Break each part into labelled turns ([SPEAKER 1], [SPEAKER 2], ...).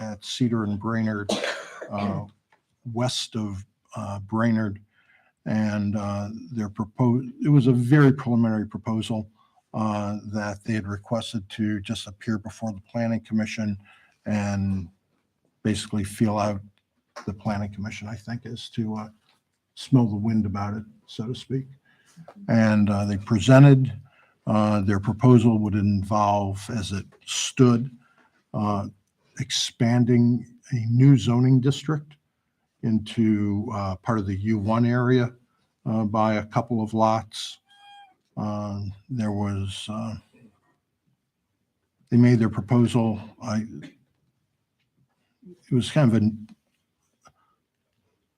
[SPEAKER 1] at Cedar and Brainerd, uh, west of uh, Brainerd. And uh, their proposed, it was a very preliminary proposal uh, that they had requested to just appear before the planning commission and basically feel out the planning commission, I think, is to uh, smell the wind about it, so to speak. And uh, they presented, uh, their proposal would involve, as it stood, uh, expanding a new zoning district into uh, part of the U1 area uh, by a couple of lots. Um, There was, uh, they made their proposal, I, it was kind of an-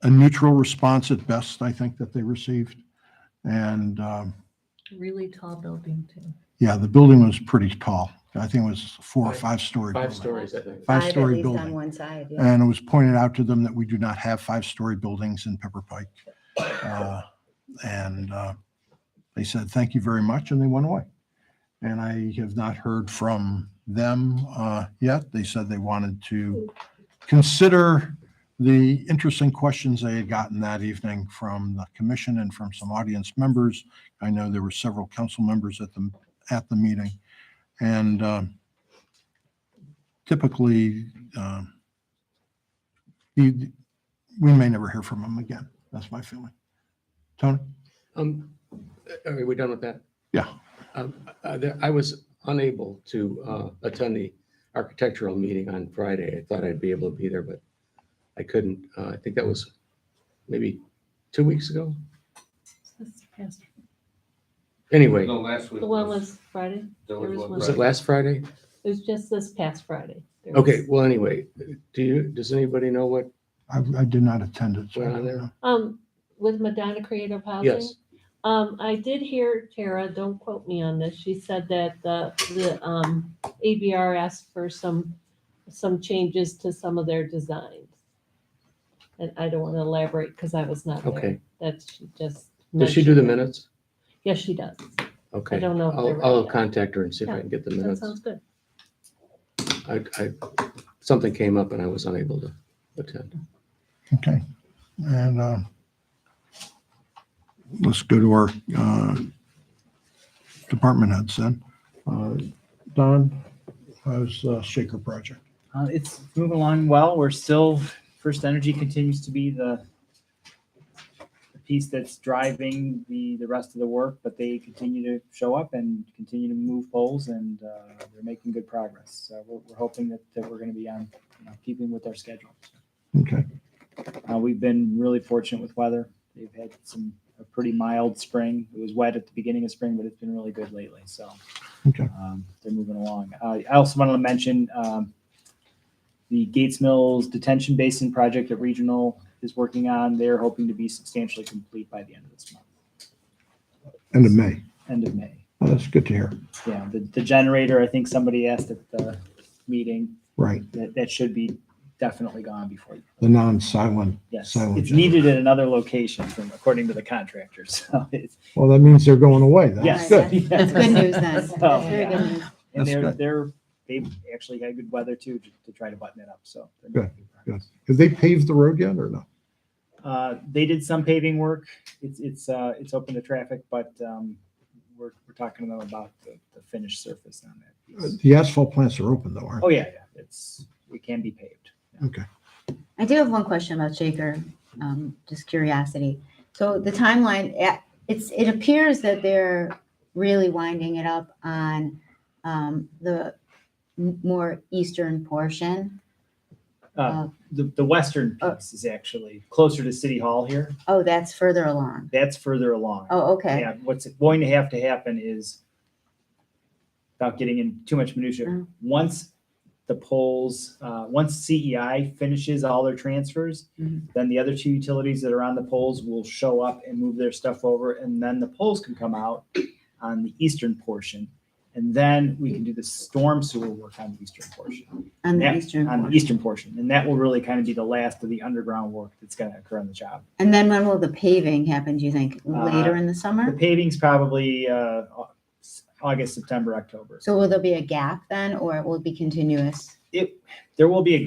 [SPEAKER 1] a neutral response at best, I think, that they received. And um,
[SPEAKER 2] Really tall building too.
[SPEAKER 1] yeah, the building was pretty tall. I think it was a four or five story.
[SPEAKER 3] Five stories, I think.
[SPEAKER 4] Five at
[SPEAKER 1] Five-story
[SPEAKER 4] least on
[SPEAKER 1] building. Uh,
[SPEAKER 4] one side, yeah.
[SPEAKER 1] And it was pointed out to them that we do not have five-story buildings in Pepper Pike. Uh, And uh, they said, thank you very much, and they went away. And I have not heard from them uh, yet. They said they wanted to consider the interesting questions they had gotten that evening from the commission and from some audience members. I know there were several council members at the, at the meeting. And um, typically, um, you, we may never hear from him again. That's my feeling. Tony?
[SPEAKER 3] Um, are we done with that?
[SPEAKER 1] Yeah.
[SPEAKER 3] Um, uh, there- I was unable to, uh, attend the architectural meeting on Friday. I thought I'd be able to be there, but I couldn't. Uh, I think that was maybe two weeks ago.
[SPEAKER 2] This past-
[SPEAKER 3] Anyway,
[SPEAKER 5] No, last week.
[SPEAKER 2] The one was Friday.
[SPEAKER 5] there
[SPEAKER 2] there was
[SPEAKER 5] one
[SPEAKER 2] one-
[SPEAKER 3] was
[SPEAKER 5] Friday.
[SPEAKER 3] it last Friday?
[SPEAKER 2] It was just this past Friday. There
[SPEAKER 3] Okay,
[SPEAKER 2] was-
[SPEAKER 3] well, anyway, do you, does anybody know what,
[SPEAKER 1] I, I did not attend it. so I
[SPEAKER 3] Were
[SPEAKER 1] don't
[SPEAKER 3] there?
[SPEAKER 1] know.
[SPEAKER 2] Um, with Madonna Creative Housing.
[SPEAKER 3] Yes.
[SPEAKER 2] Um, I did hear Tara, don't quote me on this. She said that the, the, um, ABR asked for some, some changes to some of their designs. And I don't want to elaborate because I was not there.
[SPEAKER 3] okay.
[SPEAKER 2] That's she just.
[SPEAKER 3] Does she do the
[SPEAKER 2] mentioned.
[SPEAKER 3] minutes?
[SPEAKER 2] Yes, she does.
[SPEAKER 3] Okay.
[SPEAKER 2] don't know if they're
[SPEAKER 3] I'll,
[SPEAKER 2] ready
[SPEAKER 3] I'll
[SPEAKER 2] yet.
[SPEAKER 3] contact her and see if I can get the
[SPEAKER 2] That
[SPEAKER 3] minutes.
[SPEAKER 2] sounds good.
[SPEAKER 3] I, I, something came up and I was unable to attend.
[SPEAKER 1] Okay. And, uh, let's go to our, uh, department heads then. Uh, Don, how's uh, Shaker Project?
[SPEAKER 6] Uh, it's moving along well. We're still, First Energy continues to be the the piece that's driving the, the rest of the work, but they continue to show up and continue to move poles and, uh, they're making good progress. So we're, we're hoping that, that we're gonna be on, you know, keeping with our schedule.
[SPEAKER 1] Okay.
[SPEAKER 6] Uh, we've been really fortunate with weather. They've had some, a pretty mild spring. It was wet at the beginning of spring, but it's been really good lately, so.
[SPEAKER 1] Okay.
[SPEAKER 6] um, They're moving along. Uh, I also wanted to mention, um, the Gates Mills Detention Basin project that Regional is working on. They're hoping to be substantially complete by the end of this month,
[SPEAKER 1] End of May.
[SPEAKER 6] end of May.
[SPEAKER 1] Well, that's good to hear.
[SPEAKER 6] Yeah, the, the generator, I think somebody asked at the meeting,
[SPEAKER 1] Right.
[SPEAKER 6] that, that should be definitely gone before.
[SPEAKER 1] The non-silent.
[SPEAKER 6] Yes,
[SPEAKER 1] Silent
[SPEAKER 6] it's
[SPEAKER 1] generator.
[SPEAKER 6] needed at another location from, according to the contractor, so it's,
[SPEAKER 1] Well, that means they're going away.
[SPEAKER 6] Yes. Oh.
[SPEAKER 1] That's
[SPEAKER 4] Nice.
[SPEAKER 1] good.
[SPEAKER 4] That's good news then.
[SPEAKER 6] So,
[SPEAKER 4] That's very good
[SPEAKER 6] yeah.
[SPEAKER 4] news.
[SPEAKER 6] And
[SPEAKER 1] That's
[SPEAKER 6] they're,
[SPEAKER 1] good.
[SPEAKER 6] they're, they've actually had good weather too, to- to try to button it up, so. they're
[SPEAKER 1] Good,
[SPEAKER 6] making
[SPEAKER 1] good.
[SPEAKER 6] progress.
[SPEAKER 1] Have they paved the road yet or no?
[SPEAKER 6] Uh, they did some paving work. It's, it's, uh, it's open to traffic, but, um, we're, we're talking to them about the, the finished surface on that.
[SPEAKER 1] Uh,
[SPEAKER 6] piece.
[SPEAKER 1] The asphalt plants are open though, aren't
[SPEAKER 6] Oh, yeah, yeah, it's, it can be paved.
[SPEAKER 1] they? Okay.
[SPEAKER 4] I do have one question about Shaker, um, just curiosity. So the timeline, eh, it's, it appears that they're really winding it up on, um, the m- more eastern portion.
[SPEAKER 6] Uh, the, the western piece is actually closer to City Hall here.
[SPEAKER 4] Oh, that's further along.
[SPEAKER 6] That's further along.
[SPEAKER 4] Oh, okay.
[SPEAKER 6] Yeah, what's going to have to happen is, without getting in too much minutia,
[SPEAKER 4] Mm.
[SPEAKER 6] once the polls, uh, once CEI finishes all their transfers,
[SPEAKER 4] Mhm.
[SPEAKER 6] then the other two utilities that are on the polls will show up and move their stuff over, and then the polls can come out on the eastern portion. And then we can do the storm sewer work on the eastern portion,
[SPEAKER 4] On the
[SPEAKER 6] yeah,
[SPEAKER 4] eastern
[SPEAKER 6] on the
[SPEAKER 4] portion.
[SPEAKER 6] eastern portion. And that will really kind of be the last of the underground work that's gonna occur on the job.
[SPEAKER 4] And then when will the paving happen, do you think?
[SPEAKER 6] Uh,
[SPEAKER 4] Later in the
[SPEAKER 6] The
[SPEAKER 4] summer?
[SPEAKER 6] paving's probably, uh, Au- August, September, October.
[SPEAKER 4] So will there be a gap then, or it will be continuous?
[SPEAKER 6] there will be a